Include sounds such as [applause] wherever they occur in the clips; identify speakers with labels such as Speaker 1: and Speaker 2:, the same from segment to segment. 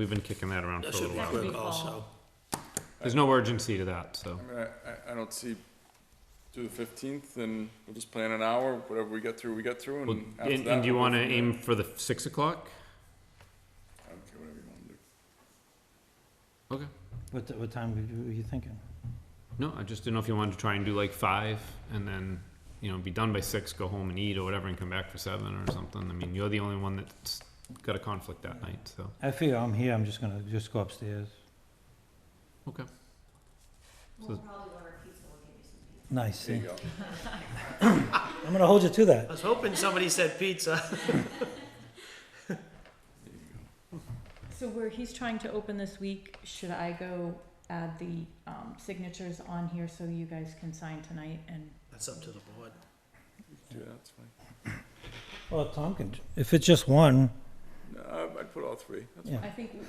Speaker 1: We've been kicking that around
Speaker 2: That
Speaker 1: for a
Speaker 2: should
Speaker 1: little while.
Speaker 2: be
Speaker 3: That would
Speaker 2: quick
Speaker 3: be
Speaker 2: also.
Speaker 3: fall.
Speaker 1: There's no urgency to that, so.
Speaker 2: Mm,
Speaker 4: I mean, I- I, I don't see, do the fifteenth, and we'll just plan an hour, whatever we get through, we get through,
Speaker 1: Well,
Speaker 4: and after
Speaker 1: And,
Speaker 4: that.
Speaker 1: and do you
Speaker 4: we'll go
Speaker 1: wanna
Speaker 4: from there.
Speaker 1: aim for the six o'clock?
Speaker 4: I don't care, whatever you wanna do.
Speaker 1: Okay.
Speaker 5: What, t- what time were you- were you thinking?
Speaker 1: No, I just didn't know if you wanted to try and do like five and then, you know, be done by six, go home and eat or whatever and come back for seven or something. I mean, you're the only one that's got a conflict that night, so.
Speaker 5: I figure I'm here, I'm just gonna, just go upstairs.
Speaker 1: Okay.
Speaker 3: We'll probably order pizza, we'll give you some pizza.
Speaker 5: Nice.
Speaker 4: There you
Speaker 5: eh?
Speaker 4: go.
Speaker 5: I'm gonna hold you to
Speaker 2: I
Speaker 5: that.
Speaker 2: was hoping somebody said pizza.
Speaker 3: So where he's trying to open this week, should I go add the um signatures on here so you guys can sign tonight and?
Speaker 2: That's up to the board.
Speaker 4: Yeah, that's fine.
Speaker 5: Well, Tom can, if it's just one,
Speaker 4: No, um, I- I'd put all three, that's
Speaker 5: Yeah.
Speaker 4: fine.
Speaker 3: I think we were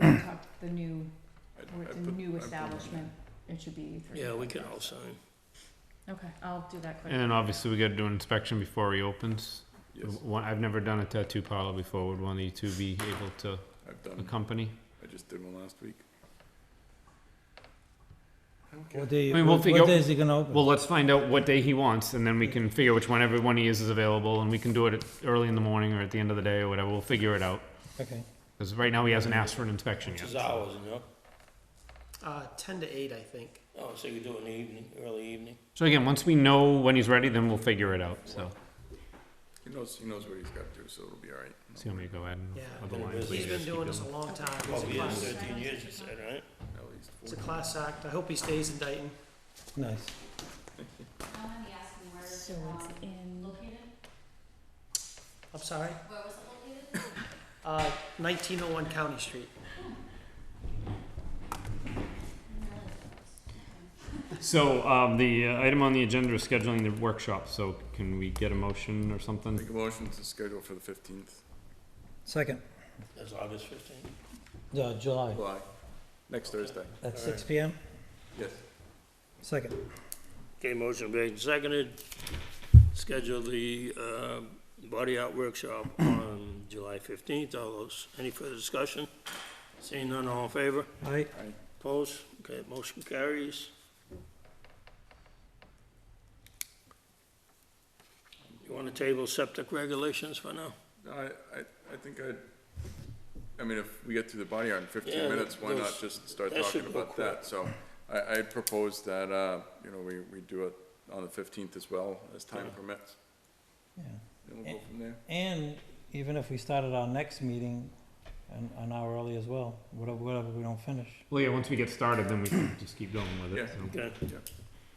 Speaker 3: talking the new,
Speaker 4: I'd-
Speaker 3: where it's a
Speaker 4: I'd put- I'd
Speaker 3: new
Speaker 4: put-
Speaker 3: establishment, it should be three.
Speaker 2: Yeah, we can all sign.
Speaker 3: Okay, I'll do that quick.
Speaker 1: And then obviously we gotta do an inspection before he opens.
Speaker 4: Yes,
Speaker 1: One, I've never done a tattoo parlor before. Would one of you two be able to
Speaker 4: I've done,
Speaker 1: accompany?
Speaker 4: I just did one last week. I don't care.
Speaker 5: what day,
Speaker 1: I mean, we'll
Speaker 5: what
Speaker 1: figure-
Speaker 5: what day is he gonna open?
Speaker 1: Well, let's find out what day he wants, and then we can figure which one everyone he is is available, and we can do it at- early in the morning or at the end of the day or whatever. We'll figure it out.
Speaker 5: Okay,
Speaker 1: Because right now he hasn't asked for an inspection yet.
Speaker 6: It's
Speaker 1: so-
Speaker 6: hours, you know?
Speaker 2: Uh, ten to eight, I think.
Speaker 6: Oh, so you do it in the evening, early evening?
Speaker 1: So again, once we know when he's ready, then we'll figure it out. So
Speaker 4: He knows, he knows what he's got to do, so it'll be all right.
Speaker 1: see how many go ahead.
Speaker 2: Yeah.
Speaker 1: Other lines we
Speaker 2: He's been
Speaker 1: just keep
Speaker 2: doing this a
Speaker 1: going.
Speaker 2: long time.
Speaker 3: Oh,
Speaker 2: He's
Speaker 6: Twelve
Speaker 2: a
Speaker 6: years,
Speaker 2: class,
Speaker 6: Oh, thirteen years, you said, right?
Speaker 4: At least
Speaker 2: he's a
Speaker 4: four.
Speaker 2: class act. I hope he stays in Dayton.
Speaker 5: nice.
Speaker 3: So it's in.
Speaker 2: I'm sorry? Uh, nineteen oh one County Street.
Speaker 1: So um, the uh, item on the agenda is scheduling the workshop. So can we get a motion or something?
Speaker 4: Make a motion to schedule for the fifteenth,
Speaker 5: Second,
Speaker 6: That's August fifteenth.
Speaker 5: uh, July,
Speaker 4: July, next Thursday,
Speaker 5: at six P M,
Speaker 4: yes.
Speaker 5: second.
Speaker 6: Okay, motion made and seconded. Schedule the, uh, body art workshop on July fifteenth. All those, any further discussion? Seeing none, all in favor?
Speaker 5: Aye,
Speaker 6: Opposed? Okay, motion carries. You wanna table septic regulations for now?
Speaker 4: No, I, I, I think I'd, I mean, if we get through the body art in fifteen
Speaker 6: Yeah,
Speaker 4: minutes, why not
Speaker 6: those-
Speaker 4: just start
Speaker 6: that
Speaker 4: talking
Speaker 6: should go
Speaker 4: about that? So I, I propose that, uh, you know, we, we do it on the fifteenth as well, as time permits,
Speaker 5: yeah.
Speaker 4: and we'll go from there.
Speaker 5: And even if we started our next meeting an, an hour early as well, whatever, whatever we don't finish.
Speaker 1: Well, yeah. Once we get started, then we can just keep going with it.
Speaker 4: Yeah.
Speaker 1: so.
Speaker 6: Okay,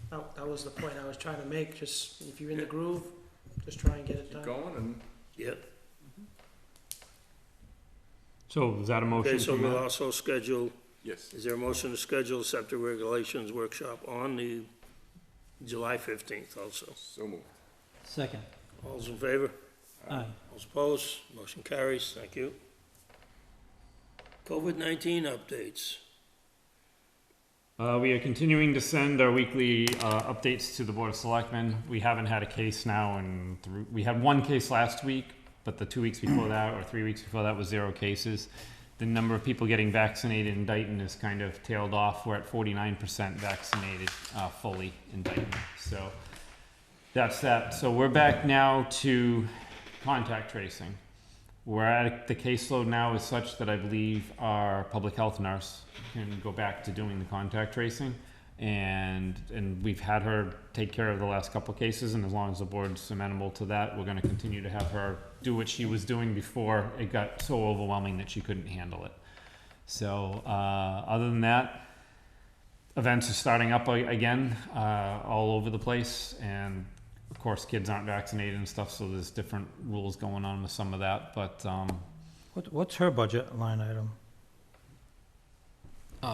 Speaker 2: That, that was the point I was trying to make. Just, if you're in the
Speaker 4: Yeah.
Speaker 2: groove, just try and get it done.
Speaker 4: Keep going, and
Speaker 6: yep.
Speaker 1: So is that a motion?
Speaker 6: Okay, so
Speaker 1: from
Speaker 6: we'll uh,
Speaker 1: that?
Speaker 6: also schedule
Speaker 4: yes,
Speaker 6: Is there a motion to schedule septic regulations workshop on the July fifteenth also?
Speaker 4: so moved.
Speaker 5: Second,
Speaker 6: All's in favor?
Speaker 5: aye.
Speaker 6: All's opposed? Motion carries. Thank you. COVID nineteen updates.
Speaker 1: Uh, we are continuing to send our weekly uh, updates to the Board of Selectmen. We haven't had a case now, and through, we had one case last week, but the two weeks before that, or three weeks before that, was zero cases. The number of people getting vaccinated in Dayton is kind of tailed off. We're at 49% vaccinated uh, fully in Dayton. So that's that. So we're back now to contact tracing. We're at the caseload now is such that I believe our public health nurse can go back to doing the contact tracing. And, and we've had her take care of the last couple of cases, and as long as the board's amenable to that, we're gonna continue to have her do what she was doing before it got so overwhelming that she couldn't handle it. So, uh, other than that, events are starting up a- again, uh, all over the place, and of course, kids aren't vaccinated and stuff, so there's different rules going on with some of that. But um,
Speaker 5: What, what's her budget line item?
Speaker 1: uh,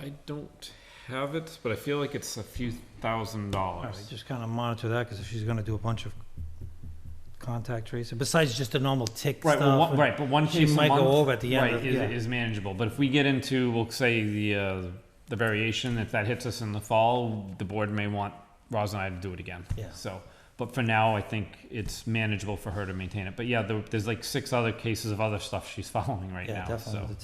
Speaker 1: I don't have it, but I feel like it's a few thousand
Speaker 5: All right,
Speaker 1: dollars.
Speaker 5: just kind of monitor that, because if she's gonna do a bunch of contact tracing, besides just the normal tick stuff.
Speaker 1: Right, well, one,
Speaker 5: and-
Speaker 1: right, but one
Speaker 5: She
Speaker 1: case a
Speaker 5: might go
Speaker 1: month,
Speaker 5: over at the end
Speaker 1: right,
Speaker 5: of-
Speaker 1: is,
Speaker 5: yeah.
Speaker 1: is manageable. But if we get into, we'll say the uh, the variation, if that hits us in the fall, the board may want Roz and I to do it again.
Speaker 5: Yeah.
Speaker 1: So But for now, I think it's manageable for her to maintain it. But yeah, there, there's like six other cases of other stuff she's [laughs] following right
Speaker 5: yeah,
Speaker 1: now.
Speaker 5: definitely
Speaker 1: so.
Speaker 5: the